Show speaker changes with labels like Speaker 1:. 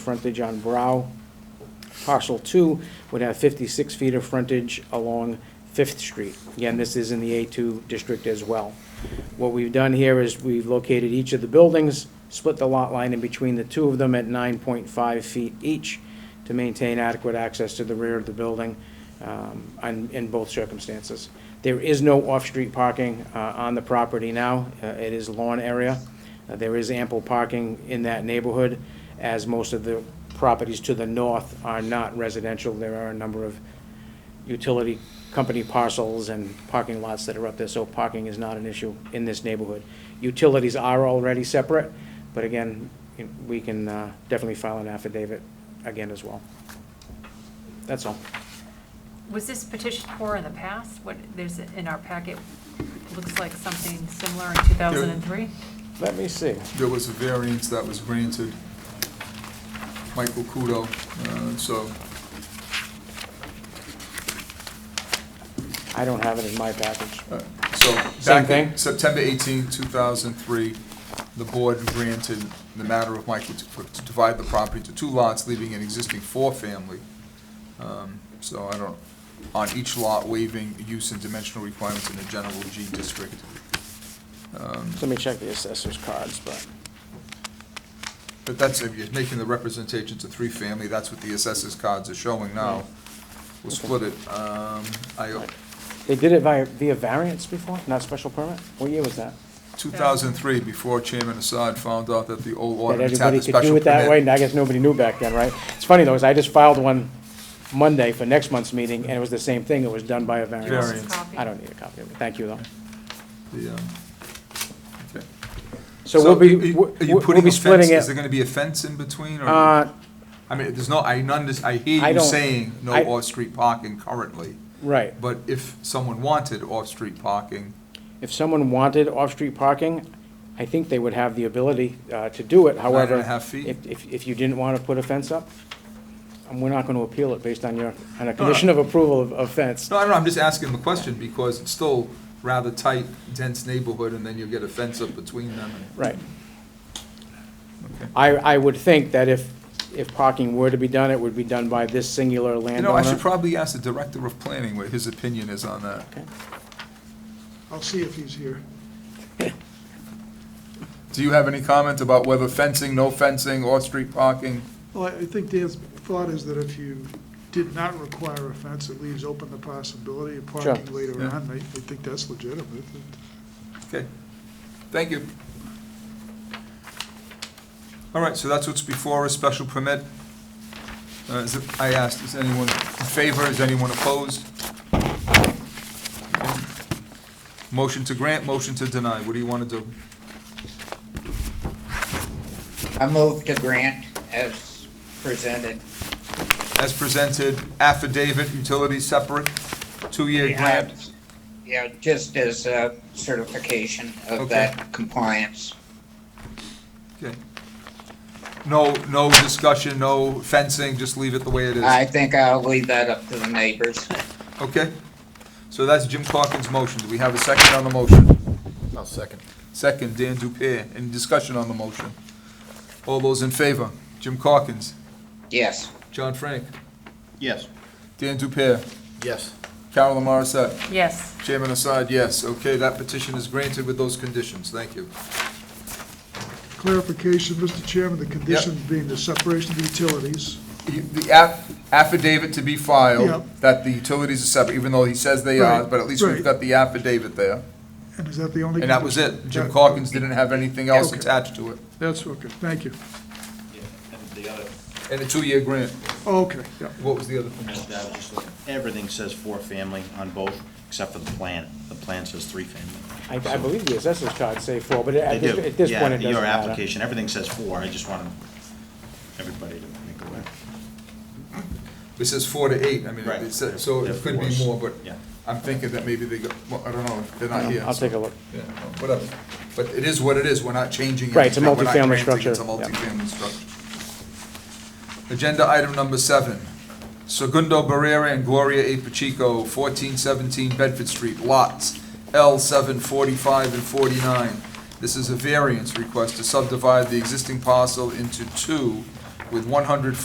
Speaker 1: frontage on Brow. Parcel two would have fifty-six feet of frontage along Fifth Street. Again, this is in the A two district as well. What we've done here is we've located each of the buildings, split the lot line in between the two of them at nine point five feet each to maintain adequate access to the rear of the building, um, in, in both circumstances. There is no off-street parking, uh, on the property now. Uh, it is lawn area. Uh, There is ample parking in that neighborhood, as most of the properties to the north are not residential. There are a number of utility company parcels and parking lots that are up there, so parking is not an issue in this neighborhood. Utilities are already separate, but again, you- we can uh, definitely file an affidavit again as well. That's all.
Speaker 2: Was this petitioned for in the past? What, there's, in our packet, looks like something similar in 2003?
Speaker 1: Let me see.
Speaker 3: there was a variance that was granted, Michael Kudo, uh, so
Speaker 1: I don't have it in my package.
Speaker 3: Uh, So
Speaker 1: Same
Speaker 3: back
Speaker 1: thing?
Speaker 3: in September 18, 2003, the board granted the matter of Michael to for- to divide the property into two lots, leaving an existing four-family. Um, So I don't, on each lot waiving use and dimensional requirements in the general G district.
Speaker 1: Let me check the assessor's cards, but
Speaker 3: But that's, if you're making the representation to three-family, that's what the assessors cards are showing now. We'll split it. Um, I,
Speaker 1: they did it via, via variance before, not special permit? What year was that?
Speaker 3: 2003, before Chairman Assad found out that the old
Speaker 1: that
Speaker 3: ordinance had
Speaker 1: everybody
Speaker 3: the
Speaker 1: could do
Speaker 3: special
Speaker 1: it that way, and
Speaker 3: permit.
Speaker 1: I guess nobody knew back then, right? It's funny though, is I just filed one Monday for next month's meeting, and it was the same thing, it was done by a variance.
Speaker 3: Variance.
Speaker 2: This is copy.
Speaker 1: I don't need a copy of it, thank you though.
Speaker 3: The, um, okay.
Speaker 1: So we'll
Speaker 3: are
Speaker 1: be,
Speaker 3: you-
Speaker 1: we'll
Speaker 3: are you
Speaker 1: we'll
Speaker 3: putting
Speaker 1: be
Speaker 3: a fence?
Speaker 1: splitting
Speaker 3: Is there
Speaker 1: it.
Speaker 3: gonna be a fence in between, or,
Speaker 1: Uh,
Speaker 3: I mean, there's no, I, understand. I hear
Speaker 1: I
Speaker 3: you
Speaker 1: don't-
Speaker 3: saying no
Speaker 1: I-
Speaker 3: off-street parking currently,
Speaker 1: right,
Speaker 3: but if someone wanted off-street parking,
Speaker 1: if someone wanted off-street parking, I think they would have the ability, uh, to do it,
Speaker 3: and a
Speaker 1: however.
Speaker 3: half feet?
Speaker 1: If, if, if you didn't wanna put a fence up, um, we're not gonna appeal it based on your, on a condition of approval of, of fence.
Speaker 3: no, I don't know, I'm just asking the question, because it's still rather tight, dense neighborhood, and then you get a fence up between them. and-
Speaker 1: Right.
Speaker 3: Okay.
Speaker 1: I, I would think that if, if parking were to be done, it would be done by this singular
Speaker 3: You know, I should
Speaker 1: landowner.
Speaker 3: probably ask the Director of Planning what his opinion is on that.
Speaker 4: I'll see if he's here.
Speaker 3: Do you have any comment about whether fencing, no fencing, off-street parking?
Speaker 4: Well, I I think Dan's thought is that if you did not require a fence, it leaves open the possibility of parking later
Speaker 3: Yeah.
Speaker 4: on. I, I think that's legitimate.
Speaker 3: Okay, thank you. All right, so that's what's before us, special permit. Uh, is it- I asked, is anyone in favor, is anyone opposed? Okay. Motion to grant, motion to deny, what do you want to do?
Speaker 5: I move to grant as presented.
Speaker 3: As presented, affidavit, utilities separate, two-year grant.
Speaker 5: Yeah, just as a certification
Speaker 3: Okay.
Speaker 5: of that compliance.
Speaker 3: Okay. No, no discussion, no fencing, just leave it the way it is.
Speaker 5: I think I'll leave that up to the neighbors.
Speaker 3: Okay, so that's Jim Corkins' motion. Do we have a second on the motion?
Speaker 6: I'll second.
Speaker 3: Second, Dan Dupierre. Any discussion on the motion? All those in favor? Jim Corkins,
Speaker 5: Yes,
Speaker 3: John Frank,
Speaker 6: Yes.
Speaker 3: Dan Dupierre,
Speaker 6: Yes.
Speaker 3: Carolyn Morissette,
Speaker 2: Yes,
Speaker 3: Chairman Assad, yes. Okay, that petition is granted with those conditions. Thank you.
Speaker 4: Clarification, Mr. Chairman, the conditions being the separation of utilities.
Speaker 3: You- The aff- affidavit to be filed,
Speaker 4: Yep.
Speaker 3: that the utilities are separate, even though he says they are,
Speaker 4: Right,
Speaker 3: but at least we've
Speaker 4: right.
Speaker 3: got the affidavit there.
Speaker 4: And is that the only?
Speaker 3: And that was
Speaker 4: condition?
Speaker 3: it. Jim
Speaker 4: That-
Speaker 3: Corkins didn't have anything else
Speaker 4: Okay.
Speaker 3: attached to it.
Speaker 4: That's, okay, thank you.
Speaker 6: Yeah, and the other,
Speaker 3: And a two-year grant.
Speaker 4: Okay, yeah.
Speaker 3: What was the other thing?
Speaker 6: as I was just looking, everything says four family on both, except for the plan. The plan says three family.
Speaker 1: I, I believe the assessor's cards say four, but at
Speaker 6: They
Speaker 1: this,
Speaker 6: do.
Speaker 1: at this point, it
Speaker 6: Yeah,
Speaker 1: doesn't
Speaker 6: your
Speaker 1: matter.
Speaker 6: application, everything says four. I just wanted everybody to make aware.
Speaker 3: It says four to eight, I mean,
Speaker 6: Right.
Speaker 3: it said, so
Speaker 6: They're
Speaker 3: it could be
Speaker 6: fours.
Speaker 3: more, but
Speaker 6: Yeah.
Speaker 3: I'm thinking that maybe they got, well, I don't know, they're not here.
Speaker 1: I'll
Speaker 3: so-
Speaker 1: take a look.
Speaker 3: Yeah, Whatever, but it is what it is, we're not changing.
Speaker 1: Right, it's a
Speaker 3: anything. We're not
Speaker 1: multifamily
Speaker 3: granting it. It's a
Speaker 1: structure, yeah.
Speaker 3: multifamily structure. Agenda item number seven, Segundo Barrera and Gloria A. Pacheco, fourteen seventeen Bedford Street, lots L seven forty-five and forty-nine. This is a variance request to subdivide the existing parcel into two with one hundred